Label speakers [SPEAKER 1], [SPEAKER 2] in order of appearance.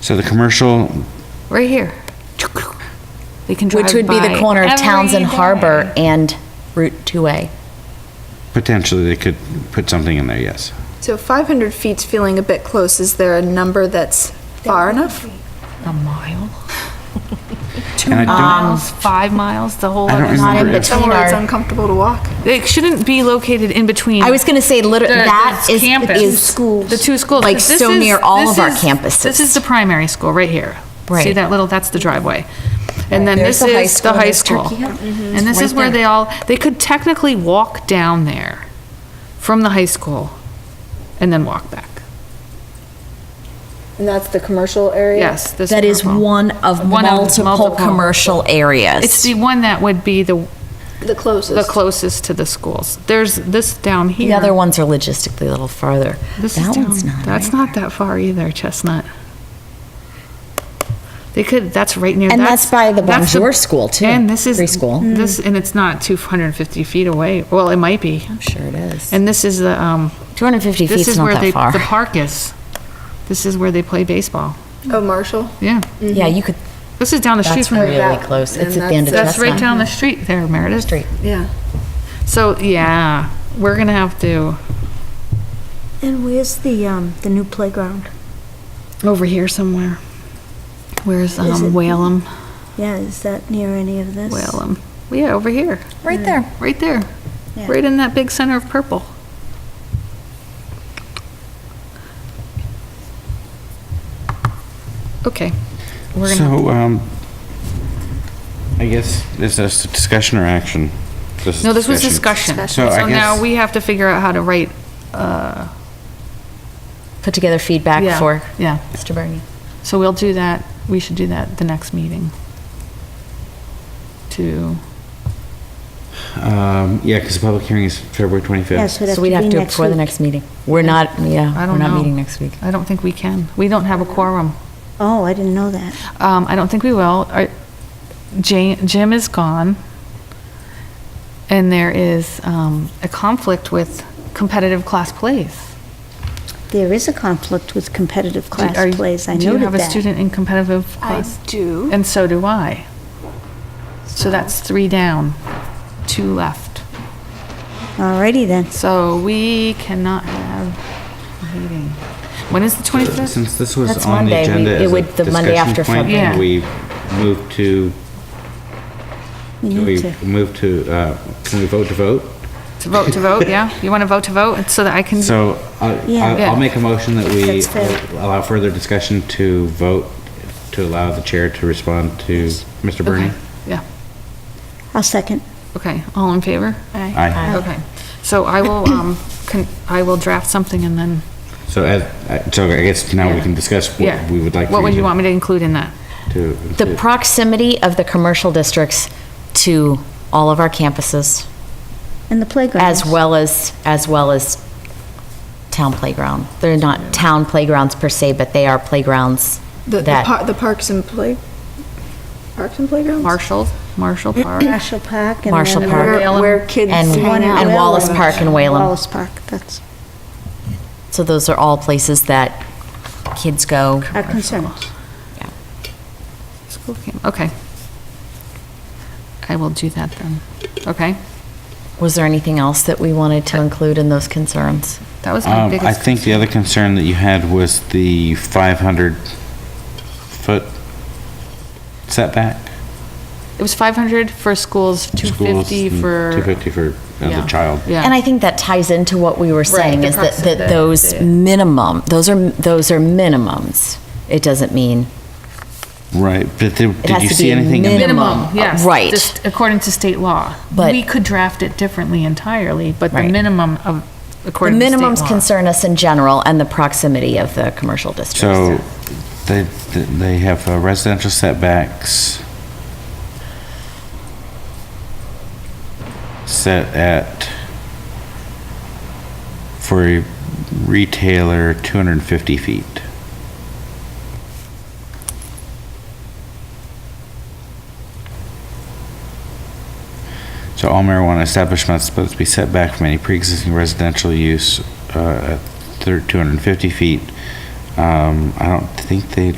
[SPEAKER 1] So the commercial,
[SPEAKER 2] right here. We can drive
[SPEAKER 3] Which would be the
[SPEAKER 2] by
[SPEAKER 3] corner of
[SPEAKER 2] every
[SPEAKER 3] Townsend Harbor
[SPEAKER 2] day.
[SPEAKER 3] and Route 2A.
[SPEAKER 1] potentially they could put something in there, yes.
[SPEAKER 4] So 500 feet's feeling a bit close. Is there a number that's far enough?
[SPEAKER 2] A mile,
[SPEAKER 1] Two miles.
[SPEAKER 2] miles, five miles, the whole.
[SPEAKER 1] I don't
[SPEAKER 2] other
[SPEAKER 1] remember.
[SPEAKER 2] side.
[SPEAKER 3] Not in
[SPEAKER 1] Remember, it's-
[SPEAKER 3] between
[SPEAKER 4] Somewhere it's
[SPEAKER 3] our,
[SPEAKER 4] uncomfortable to walk?
[SPEAKER 2] It shouldn't be located in between.
[SPEAKER 3] I was gonna say, liter-
[SPEAKER 2] the-
[SPEAKER 3] that
[SPEAKER 2] the
[SPEAKER 3] is-
[SPEAKER 2] campus.
[SPEAKER 3] is schools.
[SPEAKER 2] The two schools.
[SPEAKER 3] Like,
[SPEAKER 2] 'cause this
[SPEAKER 3] so
[SPEAKER 2] is-
[SPEAKER 3] near all
[SPEAKER 2] this
[SPEAKER 3] of our
[SPEAKER 2] is-
[SPEAKER 3] campuses.
[SPEAKER 2] This is the primary school, right here. See
[SPEAKER 3] Right.
[SPEAKER 2] that little, that's the driveway. And then
[SPEAKER 3] There's
[SPEAKER 2] this
[SPEAKER 3] the high
[SPEAKER 2] is
[SPEAKER 3] school
[SPEAKER 2] the
[SPEAKER 3] and
[SPEAKER 2] high
[SPEAKER 3] there's
[SPEAKER 2] school.
[SPEAKER 3] Turkey Hill. Mhm.
[SPEAKER 2] And this is
[SPEAKER 3] It's right
[SPEAKER 2] where
[SPEAKER 3] there.
[SPEAKER 2] they all, they could technically walk down there from the high school and then walk back.
[SPEAKER 4] And that's the commercial area?
[SPEAKER 2] Yes, this.
[SPEAKER 3] that is
[SPEAKER 2] purple.
[SPEAKER 3] one of
[SPEAKER 2] One
[SPEAKER 3] multiple commercial areas.
[SPEAKER 2] It's the one that would be the,
[SPEAKER 4] The closest?
[SPEAKER 2] the closest to the schools. There's this down here.
[SPEAKER 3] The other ones are logistically a little farther.
[SPEAKER 2] This is
[SPEAKER 3] That one's
[SPEAKER 2] down-
[SPEAKER 3] not.
[SPEAKER 2] That's
[SPEAKER 3] right.
[SPEAKER 2] not that far either, Chestnut. They could, that's right near.
[SPEAKER 3] And that's by the
[SPEAKER 2] that's
[SPEAKER 3] Bonjour school, too,
[SPEAKER 2] And this is.
[SPEAKER 3] preschool.
[SPEAKER 2] This, and it's not 250 feet away. Well, it might be.
[SPEAKER 3] I'm sure it is.
[SPEAKER 2] And this is the, um.
[SPEAKER 3] 250
[SPEAKER 2] This
[SPEAKER 3] feet's
[SPEAKER 2] is
[SPEAKER 3] not
[SPEAKER 2] where
[SPEAKER 3] that
[SPEAKER 2] they-
[SPEAKER 3] far.
[SPEAKER 2] The park is. This is where they play baseball.
[SPEAKER 4] Oh, Marshall?
[SPEAKER 2] Yeah.
[SPEAKER 3] Yeah, you could,
[SPEAKER 2] This is down the street
[SPEAKER 3] that's
[SPEAKER 2] from. here.
[SPEAKER 3] really
[SPEAKER 4] that-
[SPEAKER 3] close. It's
[SPEAKER 4] and
[SPEAKER 3] at the end of
[SPEAKER 2] That's right
[SPEAKER 3] Chestnut.
[SPEAKER 2] down the street there, Meredith.
[SPEAKER 3] Street.
[SPEAKER 4] Yeah.
[SPEAKER 2] So, yeah, we're gonna have to,
[SPEAKER 5] And where's the, um, the new playground?
[SPEAKER 2] over here somewhere. Where's,
[SPEAKER 5] Is
[SPEAKER 2] um,
[SPEAKER 5] it-
[SPEAKER 2] Whalum?
[SPEAKER 5] Yeah, is that near any of this?
[SPEAKER 2] Whalum. Yeah, over here.
[SPEAKER 3] Right there.
[SPEAKER 2] Right there.
[SPEAKER 5] Yeah.
[SPEAKER 2] Right in that big center of purple. Okay. We're gonna,
[SPEAKER 1] So, um, I guess, is this discussion or action?
[SPEAKER 2] no, this was discussion.
[SPEAKER 1] So I
[SPEAKER 2] now
[SPEAKER 1] guess,
[SPEAKER 2] we have to figure out how to write, uh,
[SPEAKER 3] Put together feedback
[SPEAKER 2] yeah,
[SPEAKER 3] for
[SPEAKER 2] Yeah.
[SPEAKER 3] Mr. Bernie.
[SPEAKER 2] So we'll do that, we should do that the next meeting. To,
[SPEAKER 1] um, yeah, because the public hearing is February 25th.
[SPEAKER 5] Yeah, so
[SPEAKER 3] So we'd have to do it before the
[SPEAKER 5] week.
[SPEAKER 3] next meeting. We're not,
[SPEAKER 2] I
[SPEAKER 3] yeah, we're
[SPEAKER 2] don't
[SPEAKER 3] not
[SPEAKER 2] know.
[SPEAKER 3] meeting next week.
[SPEAKER 2] I don't think we can. We don't have a quorum.
[SPEAKER 5] Oh, I didn't know that.
[SPEAKER 2] Um, I don't think we will. Our- Ja- Jim is gone. And there is, um, a conflict with competitive class plays.
[SPEAKER 5] There is a conflict with competitive
[SPEAKER 2] Do- are you-
[SPEAKER 5] class plays, I
[SPEAKER 2] Do you
[SPEAKER 5] noted
[SPEAKER 2] have a
[SPEAKER 5] that.
[SPEAKER 2] student in competitive
[SPEAKER 4] I
[SPEAKER 2] class?
[SPEAKER 4] do.
[SPEAKER 2] And so do I. So that's three down, two left.
[SPEAKER 5] Alrighty then.
[SPEAKER 2] So we cannot have a meeting. When is the 25th?
[SPEAKER 1] Since this was
[SPEAKER 3] That's
[SPEAKER 1] on the
[SPEAKER 3] Monday. We-
[SPEAKER 1] agenda
[SPEAKER 3] it
[SPEAKER 1] as a
[SPEAKER 3] would- the Monday
[SPEAKER 1] discussion
[SPEAKER 3] after
[SPEAKER 1] point,
[SPEAKER 2] February.
[SPEAKER 1] and we moved to,
[SPEAKER 5] We
[SPEAKER 1] do
[SPEAKER 5] need
[SPEAKER 1] we
[SPEAKER 5] to,
[SPEAKER 1] move to, uh, can we vote to vote?
[SPEAKER 2] To vote, to vote, yeah? You want to vote to vote so that I can,
[SPEAKER 1] So I-
[SPEAKER 5] Yeah.
[SPEAKER 1] I- I'll make a motion that we
[SPEAKER 5] That's fair.
[SPEAKER 1] allow further discussion to vote, to allow the chair to respond to Mr. Bernie.
[SPEAKER 2] yeah,
[SPEAKER 5] I'll second.
[SPEAKER 2] okay. All in favor?
[SPEAKER 1] Aye.
[SPEAKER 2] Okay, so I will, um, con- I will draft something and then,
[SPEAKER 1] So as, I- so I guess now we
[SPEAKER 2] Yeah.
[SPEAKER 1] can discuss
[SPEAKER 2] yeah.
[SPEAKER 1] what we would like.
[SPEAKER 2] What
[SPEAKER 1] for
[SPEAKER 2] would
[SPEAKER 1] to-
[SPEAKER 2] you want me to include in that?
[SPEAKER 1] To.
[SPEAKER 3] The
[SPEAKER 1] to-
[SPEAKER 3] proximity of the commercial districts to all of our campuses,
[SPEAKER 5] And the playground.
[SPEAKER 3] as well as, as well as town playground. They're not town playgrounds per se, but they are playgrounds
[SPEAKER 4] The, the
[SPEAKER 3] that,
[SPEAKER 4] par- the parks and play, parks and playgrounds?
[SPEAKER 2] Marshall, Marshall Park?
[SPEAKER 5] Marshall Park. and
[SPEAKER 3] Marshall
[SPEAKER 5] then
[SPEAKER 3] Park.
[SPEAKER 4] Where,
[SPEAKER 2] Whalen.
[SPEAKER 4] where kids
[SPEAKER 3] And-
[SPEAKER 5] the one
[SPEAKER 4] hang
[SPEAKER 5] at
[SPEAKER 4] out.
[SPEAKER 3] and
[SPEAKER 5] Whalen.
[SPEAKER 3] Wallace Park and Whalen.
[SPEAKER 5] Wallace Park, that's
[SPEAKER 3] so those are all places that kids go.
[SPEAKER 5] our concern.
[SPEAKER 2] School camp, okay. I will do that then, okay?
[SPEAKER 3] Was there anything else that we wanted to include in those concerns?
[SPEAKER 2] That was my
[SPEAKER 1] Um,
[SPEAKER 2] biggest.
[SPEAKER 1] I think the other concern that you had was the 500-foot setback.
[SPEAKER 2] It was 500 for schools,
[SPEAKER 1] schools mm,
[SPEAKER 2] 250
[SPEAKER 1] and
[SPEAKER 2] for.
[SPEAKER 1] 250 for as
[SPEAKER 2] Yeah.
[SPEAKER 1] a child.
[SPEAKER 2] Yeah.
[SPEAKER 3] And I think that ties into what we were saying,
[SPEAKER 2] the
[SPEAKER 3] is that,
[SPEAKER 2] proximity,
[SPEAKER 3] that those
[SPEAKER 2] yeah.
[SPEAKER 3] minimum, those are, those are minimums. It doesn't mean,
[SPEAKER 1] Right, but did did
[SPEAKER 3] has
[SPEAKER 1] you
[SPEAKER 3] to
[SPEAKER 1] see
[SPEAKER 3] be a
[SPEAKER 1] anything? in the-
[SPEAKER 2] Minimum,
[SPEAKER 3] minimum, uh,
[SPEAKER 2] yes.
[SPEAKER 3] right.
[SPEAKER 2] Just according to state law.
[SPEAKER 3] But-
[SPEAKER 2] We could draft it differently entirely, but the
[SPEAKER 3] Right.
[SPEAKER 2] minimum of,
[SPEAKER 3] the
[SPEAKER 2] according to state law.
[SPEAKER 3] minimums concern us in general and the proximity of the commercial districts.
[SPEAKER 1] So they, they have uh, residential setbacks set at, for a retailer, 250 feet. So all marijuana establishments must be set back from any pre-existing residential use uh, at thir- 250 feet. Um, I don't think they